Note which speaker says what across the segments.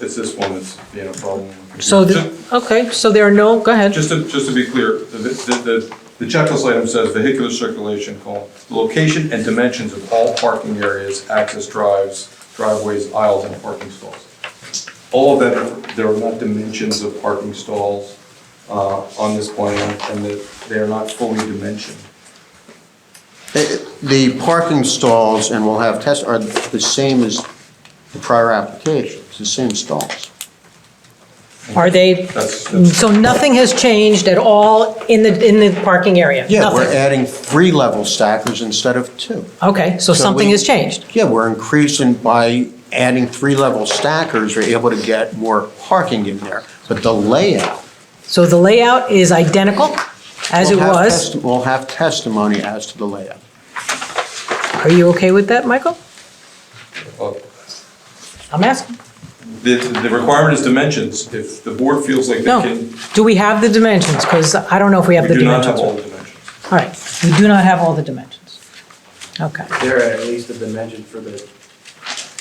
Speaker 1: it's this one that's being a problem.
Speaker 2: So, the- okay, so there are no, go ahead.
Speaker 1: Just to, just to be clear, the, the, the- the checklist item says vehicular circulation, colon, the location and dimensions of all parking areas, access drives, driveways, aisles, and parking stalls. All of that, are- there are not dimensions of parking stalls, uh, on this plan, and that they are not fully dimensioned.
Speaker 3: Uh, The parking stalls, and we'll have test, are the same as the prior application, it's the same stalls.
Speaker 2: Are they,
Speaker 1: That's- that's-
Speaker 2: so nothing has changed at all in the, in the parking area?
Speaker 3: Yeah, we're
Speaker 2: Nothing?
Speaker 3: adding three level stackers instead of two.
Speaker 2: Okay, so
Speaker 3: So
Speaker 2: something
Speaker 3: we-
Speaker 2: has changed.
Speaker 3: Yeah, we're increasing by adding three level stackers, we're able to get more parking in there, but the layout.
Speaker 2: So the layout is identical as it
Speaker 3: we'll have
Speaker 2: was.
Speaker 3: testi- We'll have testimony as to the layout.
Speaker 2: Are you okay with that, Michael? Mm.
Speaker 1: Uh,
Speaker 2: I'm asking.
Speaker 1: The, the requirement is dimensions. If the board feels like they
Speaker 2: No.
Speaker 1: can,
Speaker 2: Do we have the dimensions? Because I don't know if we have
Speaker 1: we
Speaker 2: the
Speaker 1: do not
Speaker 2: dimensions.
Speaker 1: have all
Speaker 2: All
Speaker 1: the dimensions.
Speaker 2: right, we do not have all the dimensions. Okay.
Speaker 4: There are at least a dimension for the,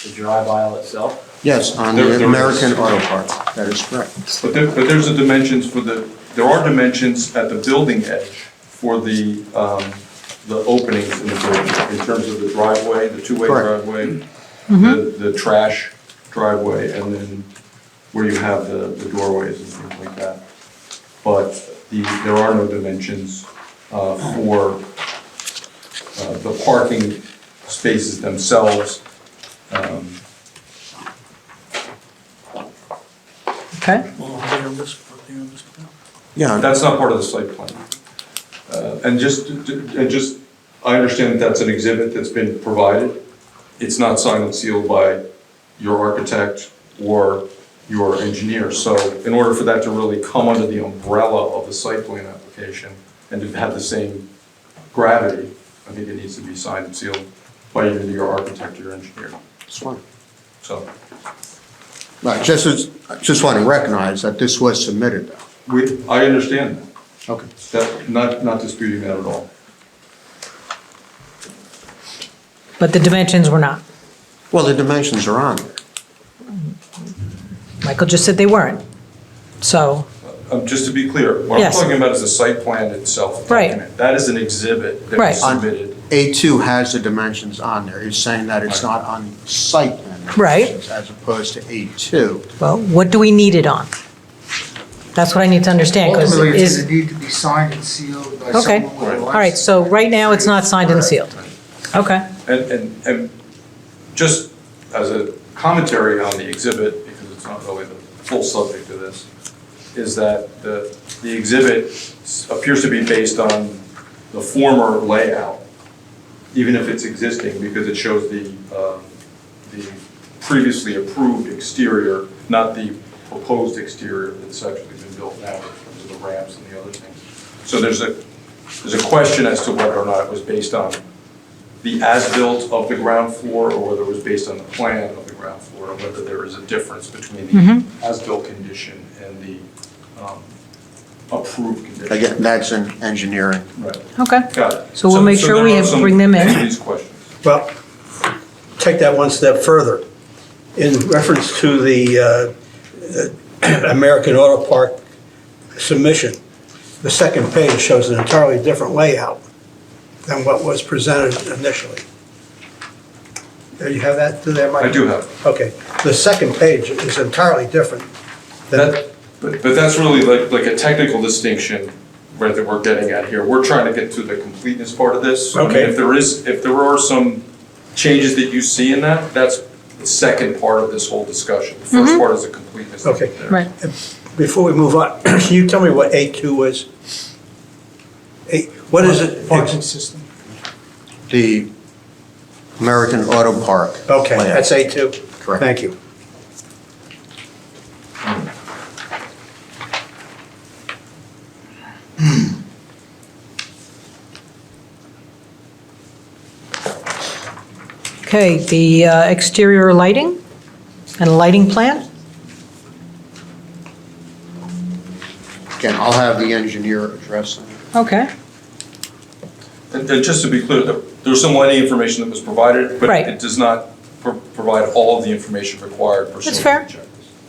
Speaker 4: the drive aisle itself.
Speaker 3: Yes, on
Speaker 1: There- there is.
Speaker 3: the American Auto Parts, that is correct.
Speaker 1: But there, but there's the dimensions for the, there are dimensions at the building edge for the, um, the openings in the building, in terms of the driveway, the two-way
Speaker 3: Correct.
Speaker 1: driveway, the, the trash driveway, and then where you have the, the doorways and things like that. But the, there are no dimensions, uh, for, uh, the parking spaces themselves. Um,
Speaker 2: Okay.
Speaker 5: Well, they're on this, they're on this plan.
Speaker 3: Yeah,
Speaker 1: That's not part of the site plan. Uh, And just, and just, I understand that's an exhibit that's been provided. It's not signed and sealed by your architect or your engineer. So in order for that to really come under the umbrella of the site plan application and to have the same gravity, I think it needs to be signed and sealed by either your architect or your engineer.
Speaker 3: that's fine.
Speaker 1: So
Speaker 3: Right, just, as- I just want to recognize that this was submitted, though.
Speaker 1: we, I understand that.
Speaker 3: Okay.
Speaker 1: that, not, not disputing that at all.
Speaker 2: But the dimensions were not.
Speaker 3: Well, the dimensions are on there.
Speaker 2: Michael just said they weren't. So,
Speaker 1: Um, Just to be clear, what I'm
Speaker 2: Yes.
Speaker 1: talking about is the site plan itself.
Speaker 2: Right.
Speaker 1: document. That is an exhibit that
Speaker 2: Right.
Speaker 1: was submitted.
Speaker 3: A2 has the dimensions on there. He's saying that it's not on the site plan. dimensions,
Speaker 2: Right.
Speaker 3: As opposed to A2.
Speaker 2: well, what do we need it on? That's what I need to understand, because
Speaker 6: Ultimately, it's
Speaker 2: is,
Speaker 6: gonna need to be signed and sealed by
Speaker 2: Okay.
Speaker 6: someone with a license.
Speaker 2: all right, so right now, it's not signed and sealed. Okay,
Speaker 1: And, and, and just as a commentary on the exhibit, because it's not really the full subject of this, is that the, the exhibit s- appears to be based on the former layout, even if it's existing, because it shows the, um, the previously approved exterior, not the proposed exterior that's actually been built now in terms of the ramps and the other things. So there's a, there's a question as to whether or not it was based on the as-built of the ground floor, or whether it was based on the plan of the ground floor, and whether there is a difference between the
Speaker 2: Mm-hmm.
Speaker 1: as-built condition and the um, approved condition.
Speaker 3: Again, that's in engineering.
Speaker 1: Right.
Speaker 2: okay.
Speaker 1: Got it.
Speaker 2: So we'll make sure
Speaker 1: there
Speaker 2: we
Speaker 1: are
Speaker 2: have-
Speaker 1: some-
Speaker 2: bring them in.
Speaker 1: These questions.
Speaker 7: Well, take that one step further. In reference to the uh, American Auto Park submission, the second page shows an entirely different layout than what was presented initially. Do you have that, do that, Mike?
Speaker 1: I do have. it.
Speaker 7: Okay, the second page is entirely different than,
Speaker 1: That, but, but that's really like, like a technical distinction, right, that we're getting at here. We're trying to get to the completeness part of this. So, I mean,
Speaker 7: Okay.
Speaker 1: If there is, if there are some changes that you see in that, that's the second part of this whole discussion. The
Speaker 2: Mm-hmm.
Speaker 1: first part is the completeness.
Speaker 7: Okay.
Speaker 1: there.
Speaker 2: Right.
Speaker 7: before we move on, can you tell me what A2 is? A- What is it?
Speaker 6: Parking system.
Speaker 3: The American Auto Park.
Speaker 7: Okay,
Speaker 3: layout.
Speaker 7: that's A2?
Speaker 3: Correct.
Speaker 7: Thank you.
Speaker 2: Okay, the uh, exterior lighting and lighting plan?
Speaker 3: Again, I'll have the engineer address that.
Speaker 2: Okay,
Speaker 1: And, and just to be clear, there- there's some lighting information that was provided, but
Speaker 2: Right.
Speaker 1: it does not pro- provide all of the information required pursuant
Speaker 2: that's
Speaker 1: to
Speaker 2: fair.
Speaker 1: the checklist.